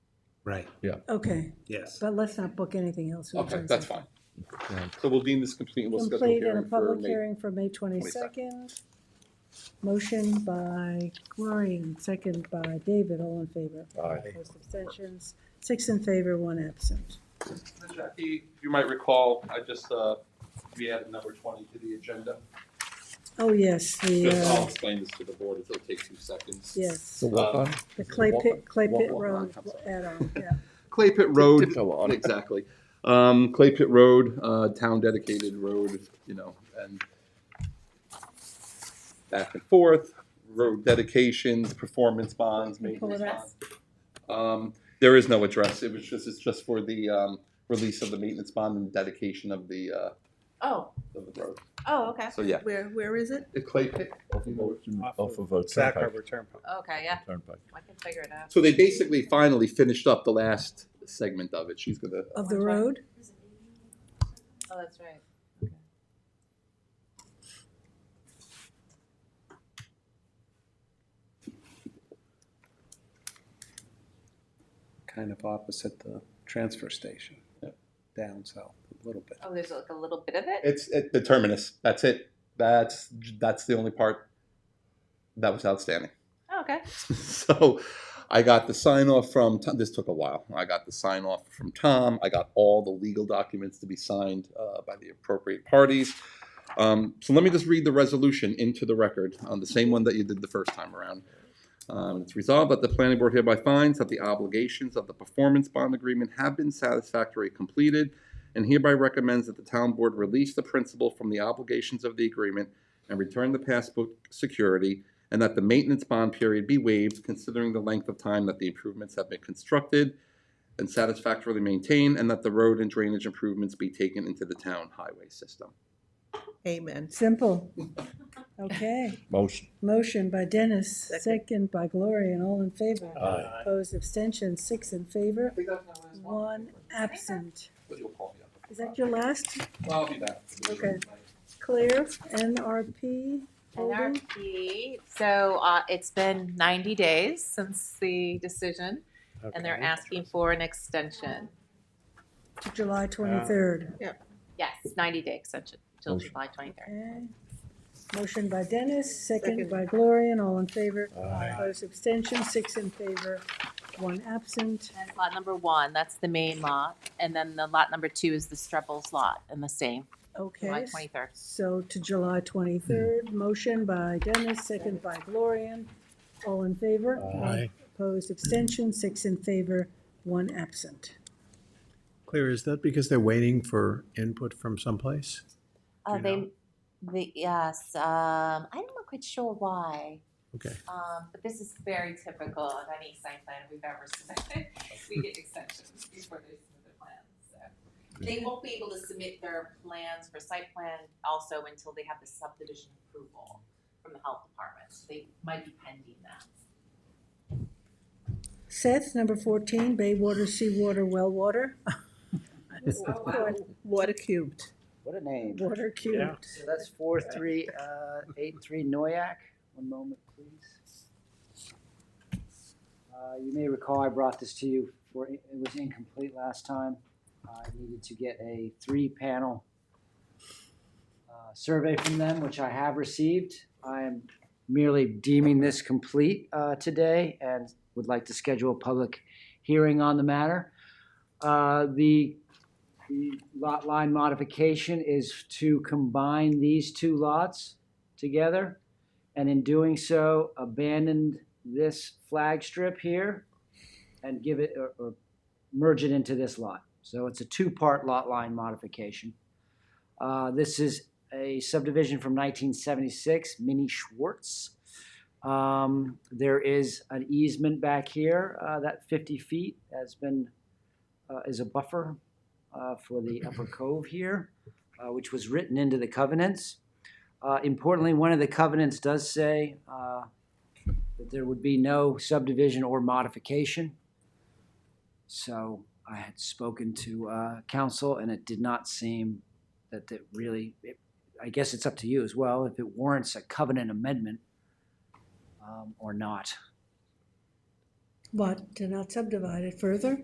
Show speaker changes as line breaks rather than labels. Right,
Okay,
yes.
but let's not book anything else. for the
Okay, that's
22nd.
fine. So we'll deem this complete and we'll schedule a
Complete and a
hearing for
public
May.
hearing for May twenty-second. Motion by Gloria and second by David, all in favor.
Aye.
Opposed, abstentions, six in favor, one absent.
Jackie, you might recall, I just, uh, we added number twenty to the agenda.
Oh, yes, the,
Just I'll
uh,
explain this to the board, it'll take two seconds.
yes,
So walk on.
the clay pit, clay
Walk-
pit
walk
road
around, I'm
add-on, yeah.
Clay Pit Road,
Tiptoe on.
exactly. Um, Clay Pit Road, uh, town dedicated road, you know, and back and forth, road dedications, performance bonds, maintenance
address?
bonds. Um, there is no address, it was just, it's just for the, um, release of the maintenance bond and dedication of the, uh,
Oh,
of the road.
oh, okay.
So, yeah,
Where, where is it?
the Clay Pit.
Off of a
Sac
turnpike.
Harbor Turnpike.
Okay, yeah,
Turnpike.
I can figure it out.
So they basically finally finished up the last segment of it. She's gonna.
Of the road,
Oh, that's right.
Kind of opposite the transfer station,
Yep.
down south a little bit.
Oh, there's like a little bit of it?
It's at the terminus. That's it. That's that's the only part that was outstanding.
Oh, Okay.
so I got the sign off from Tom. This took a while. I got the sign off from Tom. I got all the legal documents to be signed uh, by the appropriate parties. Um, so let me just read the resolution into the record, um, the same one that you did the first time around. Um, it's resolved that the planning board hereby finds that the obligations of the performance bond agreement have been satisfactorily completed and hereby recommends that the town board release the principal from the obligations of the agreement and return the passbook security and that the maintenance bond period be waived considering the length of time that the improvements have been constructed and satisfactorily maintained, and that the road and drainage improvements be taken into the town highway system.
Amen.
simple. Okay,
Motion.
motion by Dennis,
Second.
second by Gloria, and all in favor.
Aye.
Opposed, abstentions, six in favor,
think that's my last
one absent.
But you'll call me up.
Is that your last
Well, I'll be back.
Okay. clear NRP holding?
NRP, so, uh, it's been ninety days since the decision, and they're asking for an extension.
to July twenty-third.
Yes, ninety day extension till
Motion.
July twenty-third.
Okay. Motion by Dennis, second
Second.
by Gloria, and all in favor.
Aye.
Opposed, abstention, six in favor, one absent.
That's lot number one, that's the main lot, and then the lot number two is the Strebbles lot, and the same, July
Okay,
twenty-third.
so to July twenty-third, motion by Dennis, second by Gloria, and all in favor.
Aye.
Opposed, abstention, six in favor, one absent.
Claire, is that because they're waiting for input from someplace?
Uh,
you
they,
know?
the, yes, um, I'm not quite sure why.
Okay.
Um, but this is very typical of any site plan we've ever submitted. We get extensions before they submit their plans, so. They won't be able to submit their plans for site plan also until they have the subdivision approval from the health department. So They might be pending that.
Seth, number fourteen, Bay Water, Seawater, Well Water,
Water cubed.
What a name.
Water
Yeah.
Cube.
So that's four, three, uh, eight, three Noyak. One moment, please. Uh, you may recall I brought this to you for, it was incomplete last time. I needed to get a three-panel uh, survey from them, which I have received. I am merely deeming this complete, uh, today and would like to schedule a public hearing on the matter. Uh, the the lot line modification is to combine these two lots together, and in doing so, abandon this flag strip here and give it, or, or merge it into this lot. So it's a two-part lot line modification. Uh, this is a subdivision from nineteen seventy-six, Minnie Schwartz. Um, there is an easement back here, uh, that fifty feet has been, uh, is a buffer uh, for the upper cove here, uh, which was written into the covenants. Uh, Importantly, one of the covenants does say uh, that there would be no subdivision or modification. So I had spoken to uh, council, and it did not seem that it really, it- I guess it's up to you as well, if it warrants a covenant amendment um, or not.
But to not subdivide it uh, further?